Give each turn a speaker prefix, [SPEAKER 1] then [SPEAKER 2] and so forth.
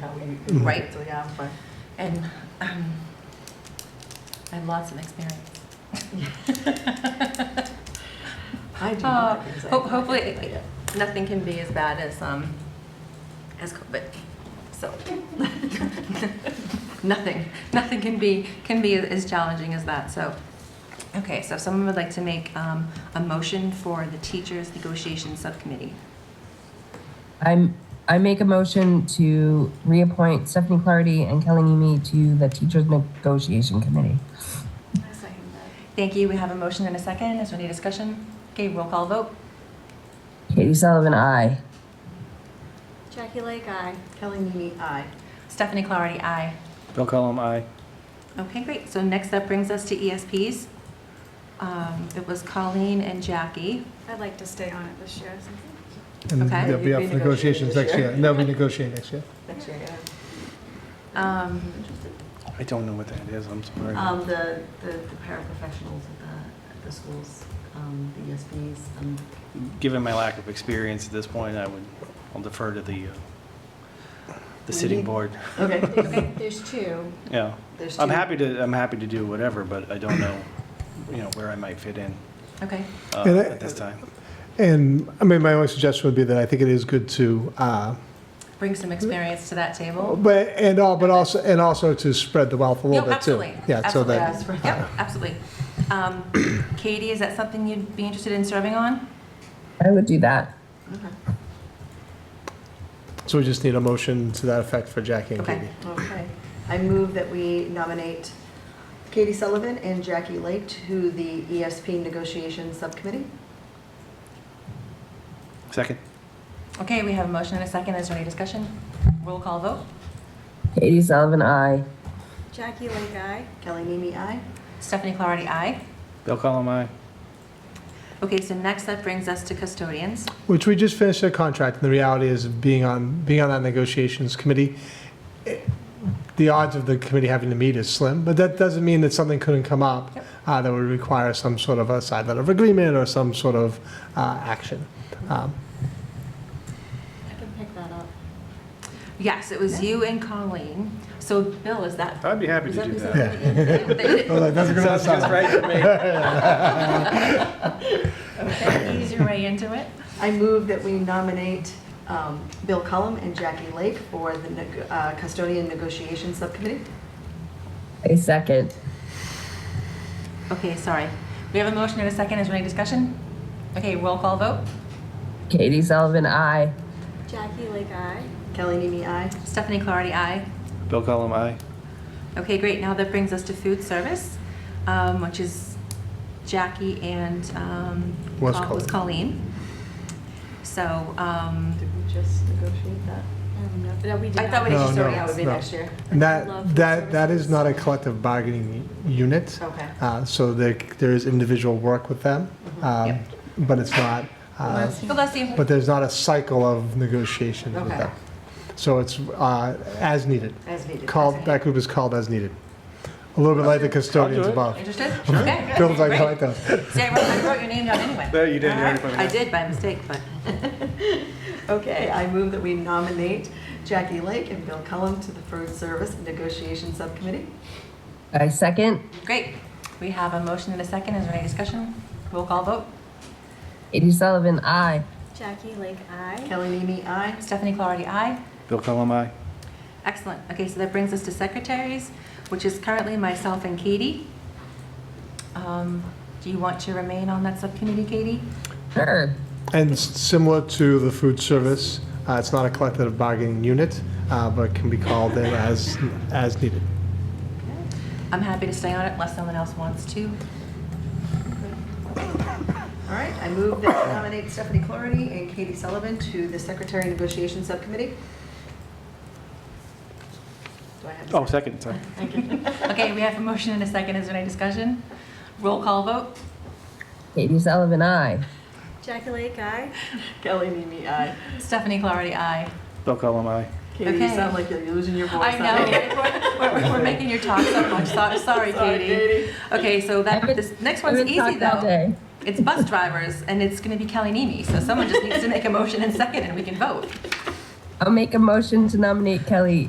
[SPEAKER 1] Mm.
[SPEAKER 2] Right.
[SPEAKER 3] So, yeah, but
[SPEAKER 2] And um, I have lots of experience.
[SPEAKER 3] I do. not have
[SPEAKER 2] Uh, ho-
[SPEAKER 3] anxiety.
[SPEAKER 2] hopefully-
[SPEAKER 3] Yeah.
[SPEAKER 2] Nothing can be as bad as, um, as COVID, so. Nothing, nothing can be, can be as challenging as that, so. Okay, so if someone would like to make um, a motion for the Teachers Negotiation Subcommittee.
[SPEAKER 4] I'm, I make a motion to reappoint Stephanie Clardy and Kelly Nimi to the Teachers Negotiation Committee.
[SPEAKER 2] Thank you, we have a motion and a second, is there any discussion? Okay, roll call vote.
[SPEAKER 4] Katie Sullivan, aye.
[SPEAKER 5] Jackie Lake Eye.
[SPEAKER 3] Kelly Mimi, aye.
[SPEAKER 2] Stephanie Clarity, aye.
[SPEAKER 1] Bill Cullum, aye.
[SPEAKER 2] Okay, great. So next up brings us to ESPs. Um, It was Colleen and Jackie.
[SPEAKER 5] I'd like to stay on it this year. since-
[SPEAKER 6] And
[SPEAKER 2] Okay.
[SPEAKER 6] they'll be up
[SPEAKER 3] You'd
[SPEAKER 6] for
[SPEAKER 3] be negotiating
[SPEAKER 6] negotiations
[SPEAKER 3] this
[SPEAKER 6] next
[SPEAKER 3] year.
[SPEAKER 6] year. And they'll be negotiating next year.
[SPEAKER 3] Next year, yeah.
[SPEAKER 2] Um,
[SPEAKER 1] I don't know what that is, I'm sorry.
[SPEAKER 3] Um, the, the the paraprofessionals at the, at the schools, um, the ESPs, um,
[SPEAKER 1] Given my lack of experience at this point, I would, I'll defer to the, uh, the sitting board,
[SPEAKER 3] okay,
[SPEAKER 5] There's- There's two.
[SPEAKER 1] yeah.
[SPEAKER 3] there's two.
[SPEAKER 1] I'm happy to, I'm happy to do whatever, but I don't know, you know, where I might fit in
[SPEAKER 2] Okay,
[SPEAKER 1] uh,
[SPEAKER 6] And I-
[SPEAKER 1] at this time.
[SPEAKER 6] And I mean, my only suggestion would be that I think it is good to, uh,
[SPEAKER 2] bring some experience to that table.
[SPEAKER 6] but, and all, but also, and also to spread the wealth a
[SPEAKER 2] No,
[SPEAKER 6] little bit too.
[SPEAKER 2] absolutely.
[SPEAKER 6] Yeah, so
[SPEAKER 2] Absolutely.
[SPEAKER 6] that,
[SPEAKER 3] Yes,
[SPEAKER 2] Yep, absolutely. Um, Katie, is that something you'd be interested in serving on?
[SPEAKER 4] I would do that.
[SPEAKER 3] okay.
[SPEAKER 6] so we just need a motion to that effect for Jackie and
[SPEAKER 2] Okay.
[SPEAKER 6] Katie.
[SPEAKER 3] Okay. I move that we nominate Katie Sullivan and Jackie Lake to the ESP negotiation subcommittee.
[SPEAKER 1] Second,
[SPEAKER 2] Okay, we have a motion and a second. Is there any discussion? Roll call vote.
[SPEAKER 4] Katie Sullivan, aye.
[SPEAKER 5] Jackie Lake Eye.
[SPEAKER 3] Kelly Mimi, aye.
[SPEAKER 2] Stephanie Clarity, aye.
[SPEAKER 1] Bill Cullum, aye.
[SPEAKER 2] Okay, so next up brings us to custodians.
[SPEAKER 6] Which we just finished a contract, and the reality is being on, being on that negotiations committee, eh, the odds of the committee having to meet is slim, but that doesn't mean that something couldn't come up
[SPEAKER 2] Yep.
[SPEAKER 6] uh, that would require some sort of a side letter of agreement or some sort of uh, action. Um,
[SPEAKER 5] I can pick that up.
[SPEAKER 2] Yes, it was you and Colleen. So Bill, is that?
[SPEAKER 1] I'd be happy to do that.
[SPEAKER 6] that's a good
[SPEAKER 1] Sounds just right to me.
[SPEAKER 2] Okay, ease your way into it.
[SPEAKER 3] I move that we nominate um, Bill Cullum and Jackie Lake for the neg- uh, custodian negotiation subcommittee.
[SPEAKER 4] A second.
[SPEAKER 2] Okay, sorry. We have a motion and a second. Is there any discussion? Okay, roll call vote.
[SPEAKER 4] Katie Sullivan, aye.
[SPEAKER 5] Jackie Lake Eye.
[SPEAKER 3] Kelly Mimi, aye.
[SPEAKER 2] Stephanie Clarity, aye.
[SPEAKER 1] Bill Cullum, aye.
[SPEAKER 2] Okay, great. Now that brings us to food service, um, which is Jackie and um,
[SPEAKER 6] Was
[SPEAKER 2] Col- was Colleen. So um,
[SPEAKER 3] Did we just negotiate that?
[SPEAKER 5] Um, no- No, we did
[SPEAKER 2] I thought we
[SPEAKER 5] not.
[SPEAKER 2] did
[SPEAKER 6] No,
[SPEAKER 2] just
[SPEAKER 6] no.
[SPEAKER 2] sort
[SPEAKER 3] That would be
[SPEAKER 6] no.
[SPEAKER 3] next year.
[SPEAKER 5] Love
[SPEAKER 6] And that, that,
[SPEAKER 5] food
[SPEAKER 6] that is
[SPEAKER 5] services.
[SPEAKER 6] not a collective bargaining unit,
[SPEAKER 3] Okay.
[SPEAKER 6] uh, so there, there is individual work with them, um, but it's not, uh,
[SPEAKER 2] Well, that's the-
[SPEAKER 6] but there's not a cycle of negotiation with
[SPEAKER 3] Okay.
[SPEAKER 6] them. So it's uh, as needed,
[SPEAKER 3] As needed.
[SPEAKER 6] called, that group is called as needed. A little bit like the custodians
[SPEAKER 1] it.
[SPEAKER 6] above.
[SPEAKER 2] Interested? Okay.
[SPEAKER 6] Bill's like, I
[SPEAKER 2] great.
[SPEAKER 6] like those.
[SPEAKER 2] See, I wrote, I wrote your name down anyway.
[SPEAKER 1] There, you did, you already put it
[SPEAKER 2] I
[SPEAKER 1] in.
[SPEAKER 2] did by mistake, but
[SPEAKER 3] Okay, I move that we nominate Jackie Lake and Bill Cullum to the Food Service Negotiation Subcommittee.
[SPEAKER 4] A second.
[SPEAKER 2] great. We have a motion and a second. Is there any discussion? Roll call vote.
[SPEAKER 4] Katie Sullivan, aye.
[SPEAKER 5] Jackie Lake Eye.
[SPEAKER 3] Kelly Mimi, aye.
[SPEAKER 2] Stephanie Clarity, aye.
[SPEAKER 1] Bill Cullum, aye.
[SPEAKER 2] Excellent. Okay, so that brings us to secretaries, which is currently myself and Katie. Um, Do you want to remain on that subcommittee, Katie?
[SPEAKER 4] Sure.
[SPEAKER 6] And s- similar to the food service, uh, it's not a collective bargaining unit, uh, but can be called in as, as needed.
[SPEAKER 2] I'm happy to stay on it unless someone else wants to.
[SPEAKER 3] All right, I move that we nominate Stephanie Clarity and Katie Sullivan to the Secretary Negotiation Subcommittee. Do I have a
[SPEAKER 1] Oh, second, sorry.
[SPEAKER 2] Okay, we have a motion and a second. Is there any discussion? Roll call vote.
[SPEAKER 4] Katie Sullivan, aye.
[SPEAKER 5] Jackie Lake Eye.
[SPEAKER 3] second? Kelly Mimi, aye.
[SPEAKER 2] Stephanie Clarity, aye.
[SPEAKER 1] Bill Cullum, aye.
[SPEAKER 3] Katie, you
[SPEAKER 2] Okay.
[SPEAKER 3] sound like you're losing your voice.
[SPEAKER 2] I know, we're- we're, we're making your talk so much. So- Sorry, Katie. Okay, so that,
[SPEAKER 4] I've been-
[SPEAKER 2] this next
[SPEAKER 4] I've
[SPEAKER 2] one's
[SPEAKER 4] been
[SPEAKER 2] easy
[SPEAKER 4] talking all
[SPEAKER 2] though.
[SPEAKER 4] day.
[SPEAKER 2] It's bus drivers and it's gonna be Kelly Nimi, so someone just needs to make a motion and second and we can vote.
[SPEAKER 4] I'll make a motion to nominate Kelly